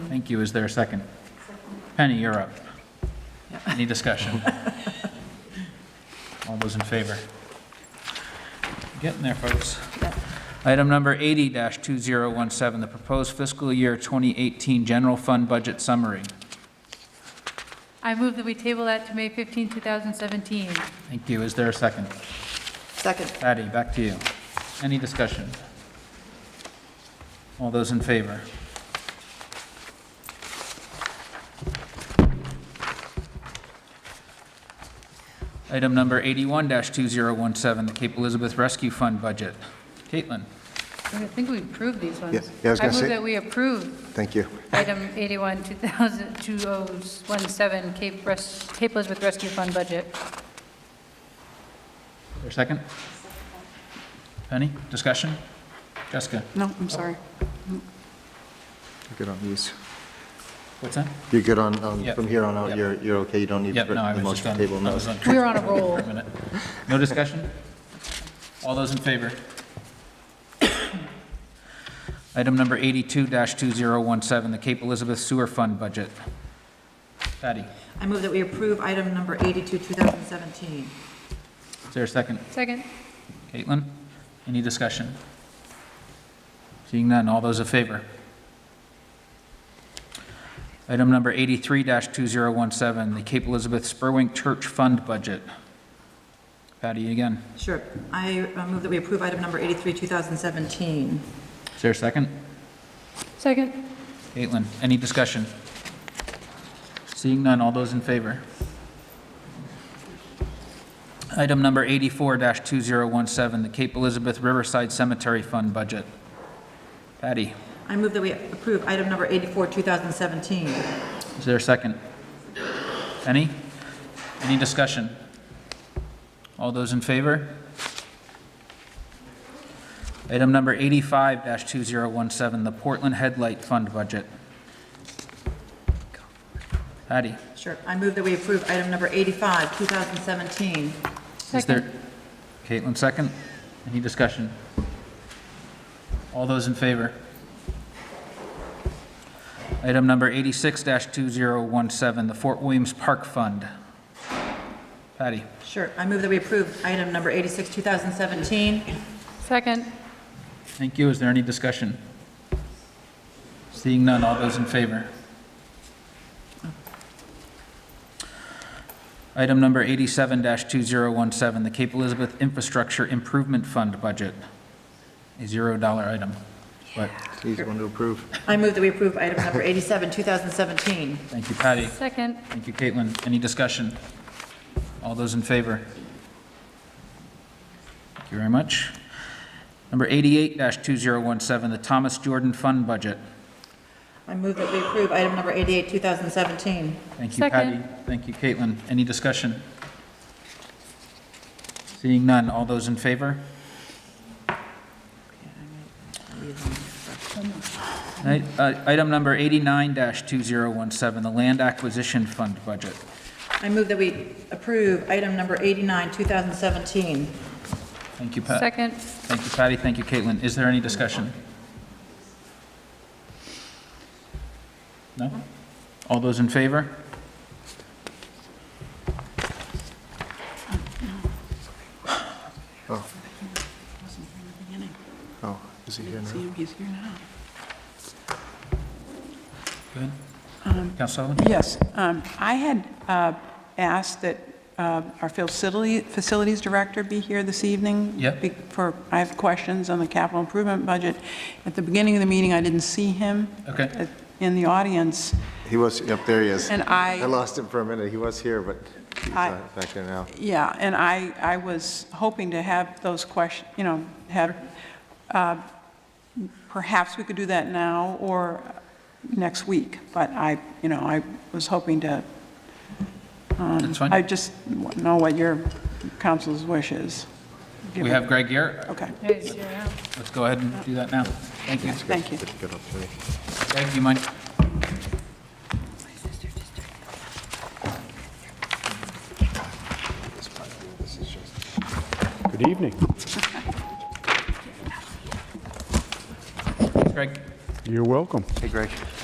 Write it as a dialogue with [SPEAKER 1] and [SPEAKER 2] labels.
[SPEAKER 1] Thank you. Is there a second? Penny, you're up. Any discussion? All those in favor? Getting there, folks. Item number 80-2017, the proposed fiscal year 2018 general fund budget summary.
[SPEAKER 2] I move that we table that to May 15, 2017.
[SPEAKER 1] Thank you. Is there a second?
[SPEAKER 3] Second.
[SPEAKER 1] Patty, back to you. Any discussion? All those in favor? Item number 81-2017, the Cape Elizabeth Rescue Fund budget. Caitlin,
[SPEAKER 2] I think we approved these ones.
[SPEAKER 4] Yeah, yeah, I was gonna say-
[SPEAKER 2] move that we approve
[SPEAKER 4] Thank you.
[SPEAKER 2] item 81, 2000 2017, Cape Res- Cape Elizabeth Rescue Fund budget.
[SPEAKER 1] your second? Penny, discussion? Jessica,
[SPEAKER 3] No, I'm sorry.
[SPEAKER 4] You're Good on these.
[SPEAKER 1] what's that?
[SPEAKER 4] You're good on, on-
[SPEAKER 1] Yep.
[SPEAKER 4] from here on out,
[SPEAKER 1] Yep.
[SPEAKER 4] you're, you're okay, you don't need
[SPEAKER 1] Yep, no, I
[SPEAKER 4] the
[SPEAKER 1] was just
[SPEAKER 4] motion
[SPEAKER 1] on,
[SPEAKER 4] table,
[SPEAKER 1] I
[SPEAKER 4] no.
[SPEAKER 1] was on.
[SPEAKER 2] We were on a roll.
[SPEAKER 1] a minute. No discussion? All those in favor? Item number 82-2017, the Cape Elizabeth Sewer Fund Budget. Patty,
[SPEAKER 3] I move that we approve item number 82, 2017.
[SPEAKER 1] is there a second?
[SPEAKER 2] Second.
[SPEAKER 1] Caitlin, any discussion? Seeing none, all those in favor? Item number 83-2017, the Cape Elizabeth Spurwink Church Fund Budget. Patty again,
[SPEAKER 3] Sure. I uh, move that we approve item number 83, 2017.
[SPEAKER 1] is there a second?
[SPEAKER 2] Second.
[SPEAKER 1] Caitlin, any discussion? Seeing none, all those in favor? Item number 84-2017, the Cape Elizabeth Riverside Cemetery Fund Budget. Patty,
[SPEAKER 3] I move that we approve item number 84, 2017.
[SPEAKER 1] is there a second? Any? Any discussion? All those in favor? Item number 85-2017, the Portland Headlight Fund Budget. Patty?
[SPEAKER 3] Sure. I move that we approve item number 85, 2017.
[SPEAKER 1] Is there,
[SPEAKER 2] Second.
[SPEAKER 1] Caitlin, second? Any discussion? All those in favor? Item number 86-2017, the Fort Williams Park Fund. Patty,
[SPEAKER 3] Sure. I move that we approve item number 86, 2017.
[SPEAKER 2] Second.
[SPEAKER 1] thank you. Is there any discussion? Seeing none, all those in favor? Item number 87-2017, the Cape Elizabeth Infrastructure Improvement Fund Budget, a $0 item, but
[SPEAKER 4] Please, one to approve.
[SPEAKER 3] I move that we approve item number 87, 2017.
[SPEAKER 1] Thank you, Patty.
[SPEAKER 2] Second.
[SPEAKER 1] Thank you, Caitlin. Any discussion? All those in favor? Thank you very much. Number 88-2017, the Thomas Jordan Fund Budget.
[SPEAKER 3] I move that we approve item number 88, 2017.
[SPEAKER 1] Thank you, Patty. Thank you, Caitlin. Any discussion? Seeing none, all those in favor? Right, uh, Item number 89-2017, the Land Acquisition Fund Budget.
[SPEAKER 3] I move that we approve item number 89, 2017.
[SPEAKER 1] Thank you, Pat.
[SPEAKER 2] Second.
[SPEAKER 1] Thank you, Patty. Thank you, Caitlin. Is there any discussion? No? All those in favor?
[SPEAKER 4] Oh, is he here now?
[SPEAKER 5] See him, he's here now.
[SPEAKER 1] Good. Council Sullivan?
[SPEAKER 5] Yes, um, I had uh, asked that uh, our facility- facilities director be here this evening.
[SPEAKER 1] Yep.
[SPEAKER 5] be- For, I have questions on the capital improvement budget. At the beginning of the meeting, I didn't see him.
[SPEAKER 1] Okay.
[SPEAKER 5] at- In the audience.
[SPEAKER 4] He was, yep, there he is.
[SPEAKER 5] And I-
[SPEAKER 4] I lost him for a minute, he was here, but he's
[SPEAKER 5] I-
[SPEAKER 4] not back there now.
[SPEAKER 5] Yeah, and I, I was hoping to have those questions, you know, have, uh, perhaps we could do that now or next week, but I, you know, I was hoping to
[SPEAKER 1] That's
[SPEAKER 5] I
[SPEAKER 1] fine.
[SPEAKER 5] just want to know what your council's wish is.
[SPEAKER 1] We have Greg here.
[SPEAKER 5] Okay,
[SPEAKER 2] There's zero now.
[SPEAKER 1] Let's go ahead and do that now. Thank you.
[SPEAKER 5] thank you.
[SPEAKER 4] Good- Good opportunity.
[SPEAKER 1] Greg, do you mind?
[SPEAKER 6] Good evening.
[SPEAKER 1] Greg?
[SPEAKER 6] You're welcome.
[SPEAKER 4] Hey, Greg.